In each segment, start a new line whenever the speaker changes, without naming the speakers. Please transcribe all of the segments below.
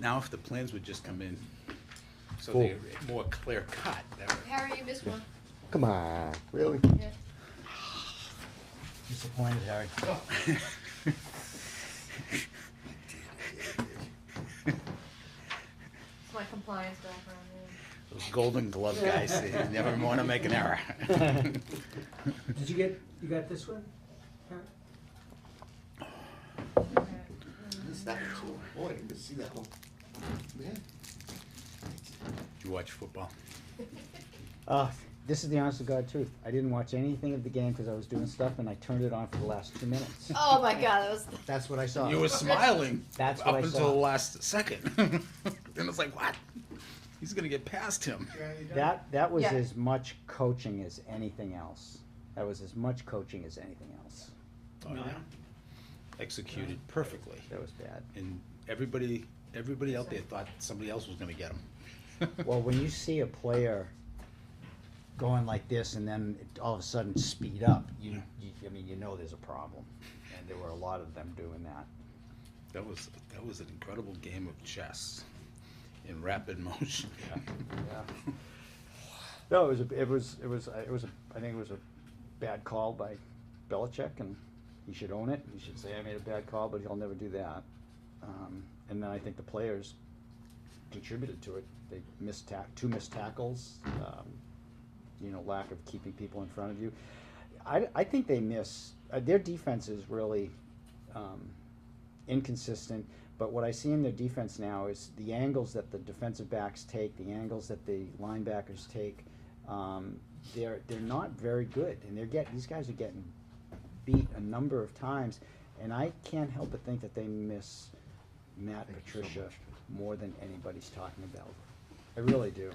Now, if the plans would just come in, so they're more clear cut, that would.
Harry, you missed one.
Come on, really?
Yeah.
Disappointed, Harry.
It's my compliance background, yeah.
Those golden glove guys, they never wanna make an error.
Did you get, you got this one? Harry?
Okay.
It's not cool. Boy, you can see that one. Man.
You watch football?
Uh, this is the honest to God truth. I didn't watch anything of the game because I was doing stuff and I turned it on for the last two minutes.
Oh my god, that was.
That's what I saw.
You were smiling
Uh, That's
up
what I
until
saw.
the last second. And it's like, what? He's gonna get past him.
That, that was
Yeah.
as much coaching as anything else. That was as much coaching as anything else.
Oh, yeah. Executed perfectly.
That was bad.
And everybody, everybody out there thought somebody else was gonna get him.
Well, when you see a player going like this and then it- all of a sudden speed up, you, you, I mean, you know there's a problem. And there were a lot of them doing that.
That was, that was an incredible game of chess in rapid motion.
Yeah. No, it was, a, it was, it was, it was, a, I think it was a bad call by Belichick, and he should own it. He should say, I made a bad call, but he'll never do that. Um, and then I think the players contributed to it. They missed tack, two missed tackles, um, you know, lack of keeping people in front of you. I, I think they miss, uh, their defense is really, um, inconsistent. But what I see in their defense now is the angles that the defensive backs take, the angles that the linebackers take. Um, they're they're not very good, and they're get these guys are getting beat a number of times, and I can't help but think that they miss Matt
Thank you so
Patricia
much.
more than anybody's talking about. I really do.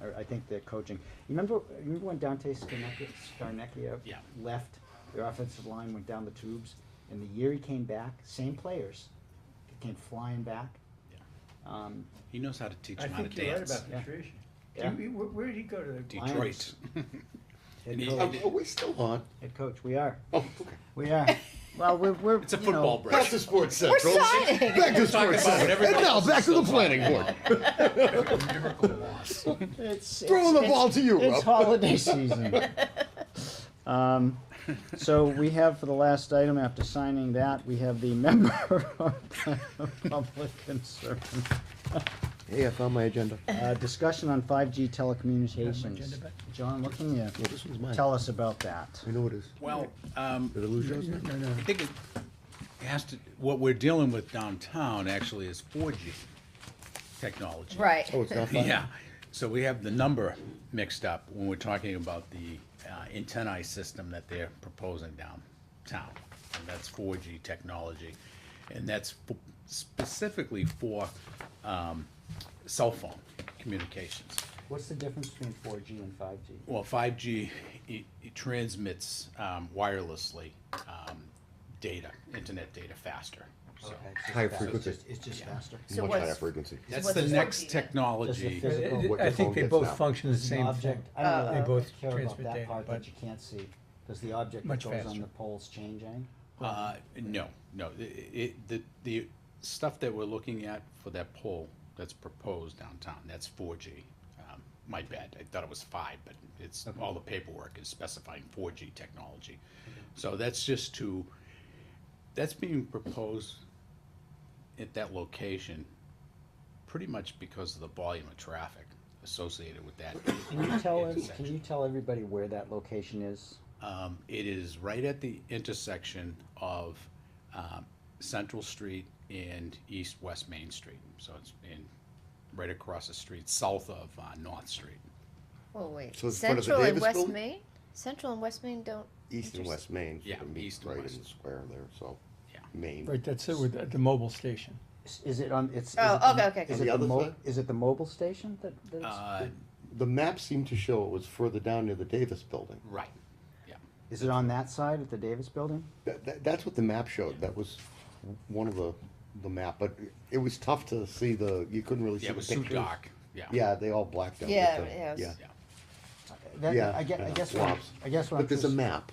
I, I think they're coaching. You remember, you remember when Dante Scarnecchia, Scarnecchia
Yeah.
left, their offensive line went down the tubes, and the year he came back, same players, he came flying back.
Yeah.
Um,
He knows how to teach
I
him how to
think you're right
dance.
about
Yeah.
Patricia.
Yeah.
Did we- Where, where did he go to the?
Detroit.
head
And he-
coach,
and
Are we still on?
head coach, we are,
Oh, okay.
we are. Well, we're, we're,
It's a
you
football
know,
break.
Back to Sports Central.
signing.
Back
Talking
to Sports
about
Central.
whatever
And now,
else
back
is
to the
still
planning
going
board.
It's,
Throw
it's-
the
it's-
ball to you,
It's
Rob.
holiday season. Um, so we have for the last item, after signing that, we have the member of public concern.
Hey, I found my agenda.
Uh, discussion on five G telecommunications.
agenda back?
John, what can you
Yeah, this one's mine.
tell us about that?
I know it is.
Well, um,
Did I lose yours? No, no,
I think it it has to, what we're dealing with downtown actually is four G technology.
Right.
Oh, it's not fine?
Yeah, so we have the number mixed up when we're talking about the uh, antennae system that they're proposing downtown. And that's four G technology, and that's f- specifically for um, cell phone communications.
What's the difference between four G and five G?
Well, five G, it, it transmits um, wirelessly, um, data, internet data faster, so.
Higher frequency.
It's just faster.
So
Much
what's-
higher frequency.
That's
what's
the
4G
next
then?
technology.
Does the
what
I
your
think
phone
they
gets
both
now.
function the
The
same thing.
object, I don't
They
know,
both
care about
transmit
that
data,
part
but
that you can't see. Does the object that
Much
goes on
faster.
the poles change any?
Uh, no, no, i- i- the, the stuff that we're looking at for that pole that's proposed downtown, that's four G. Um, My bad, I thought it was five, but it's, all the paperwork is specifying four G technology. So that's just to, that's being proposed at that location, pretty much because of the volume of traffic associated with that.
Can you tell us,
intersection.
can you tell everybody where that location is?
Um, it is right at the intersection of, um, Central Street and East West Main Street. So it's in, right across the street, south of, uh, North Street.
Well, Oh, wait.
So it's part of the
Central and
Davis
West
building?
Main. Central and West Main don't.
East and
intersect.
West Main.
Yeah,
Meet
east and
Right
west.
in the square there, so.
Yeah.
Main.
Right, that's it with the- the mobile station.
Is- Is it on, it's. is
Oh,
it the-
okay, okay, okay.
Is
On
it
the
the
other
mo,
side?
is it the mobile station that, that it's,
Uh,
The map seemed to show it was further down near the Davis building.
right, yeah.
is it on that side at the Davis Building?
That, that, that's what the map showed. That was one of the, the map, but it was tough to see the, you couldn't really see
Yeah,
the
it was too
pictures.
dark, yeah.
Yeah, they all blacked out. with
Yeah,
the-
yeah, it was-
Yeah.
Yeah.
That-
Yeah,
I guess, I
yeah,
guess, what I'm-
swaps.
I guess what I'm
But there's a
just,
map.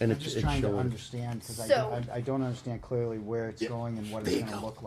And
I'm
it's,
just
it's
trying to
showing.
understand, cause I,
So-
I, I don't understand clearly where it's going and what it's gonna look like.